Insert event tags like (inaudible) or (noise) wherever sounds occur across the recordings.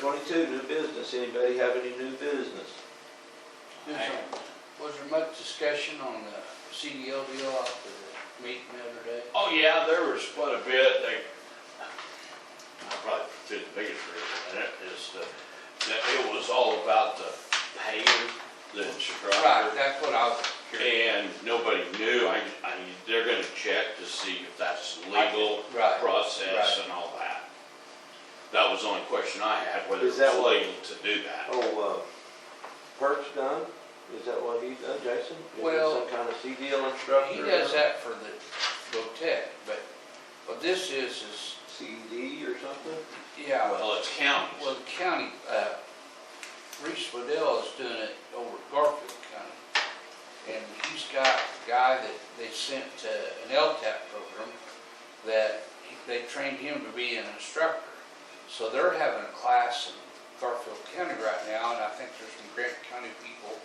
twenty-two, new business. Anybody have any new business? Yes, sir. Was there much discussion on the CDL deal after the meeting the other day? Oh, yeah, there was quite a bit, they, I probably did the biggest reason, and it is the, that it was all about the paying the Right, instructor. that's what I was curious. And nobody knew, I, I, they're gonna check to see if that's legal Right, process right. and all that. That was the only question I had, whether Is it's that what- legal to do that. Oh, uh, Perk's done? Is that what he done, Jason? Is he Well, Some kind of CDL instructor? He does that for the Rotec, but what this is, is, CD or something? yeah, Well, it's counties. well, the county, uh, Reese Waddell is doing it over at Garfield County. And he's got a guy that they sent to an LTAP program that he- they trained him to be an instructor. So they're having a class in Garfield County right now, and I think there's some Grant County people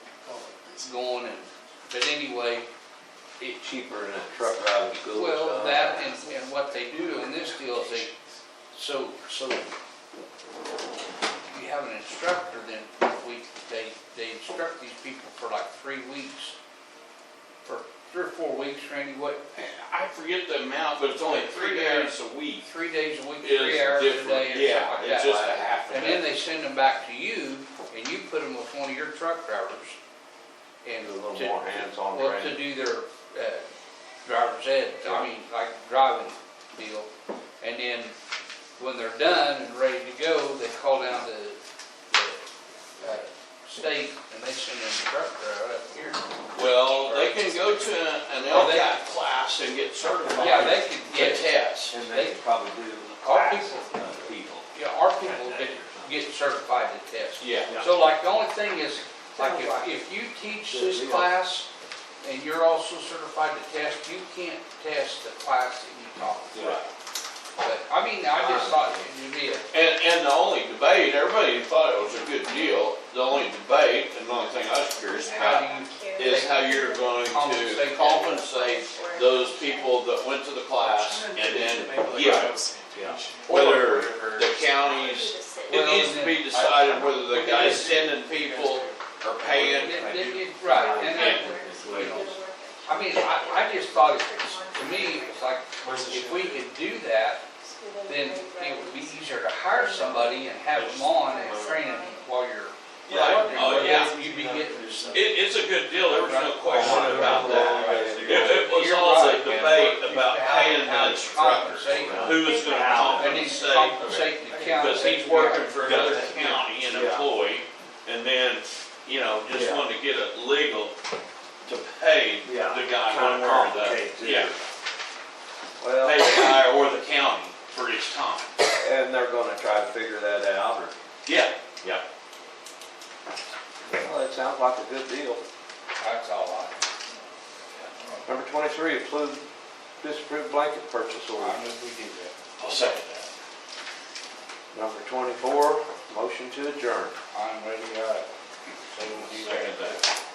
going and, but anyway, it, Cheaper than a truck driving school or well, something. that and, and what they do in this deal is they, so, so you have an instructor, then we, they, they instruct these people for like three weeks, for three or four weeks, Randy, what, I forget the amount, but it's only three days a week. three days a week, It's three hours a different, day or yeah, something like it's just a that. half a And then day. they send them back to you and you put them with one of your truck drivers. And A little to- more hands-on Well, to training. do their, uh, driver's ed, I mean, like driving deal. And then when they're done and ready to go, they call down to the, uh, state and they send them a truck driver up here. Well, they can go to an Well, they- LCAT class and get certified. Yeah, they could To get, test. And they could probably do Our classes, people- uh, people. yeah, our people get, get certified to test. Yeah. So like, the only thing is, like, if, if you teach this class and you're also certified to test, you can't test the class that you taught. Right. But, I mean, I just thought it'd be a, And, and the only debate, everybody thought it was a good deal, the only debate, and the only thing I was curious how do about, you, is how you're going to Compensate. compensate those people that went to the class and then, yeah, Yeah. whether the counties, it Well, needs to be then- decided whether the guy's sending people or paying. it- it- it- right, and that, I mean, I, I just thought it was, to me, it was like, if we could do that, then it would be easier to hire somebody and have them on and train them while you're. Right. Oh, yeah. You'd be getting some. It, it's a good deal, there was no question about that. (laughs) If it was You're all a right, man. debate about paying the It's how it's instructors, who was gonna And he's compensate? compensating the county. Because he's working for another county, an employee, and then, you know, just Yeah. wanted to get it legal to pay Yeah, the guy one kinda way or complicated, the, too. yeah, pay Well, the guy or the county for his time. and they're gonna try to figure that out, or, Yeah, yeah. well, it sounds like a good deal. That's all I, Number twenty-three, approve, disapprove blanket purchase order. I knew we did that. I'll second that. Number twenty-four, motion to adjourn. I'm ready, uh, so we'll do that. Second that.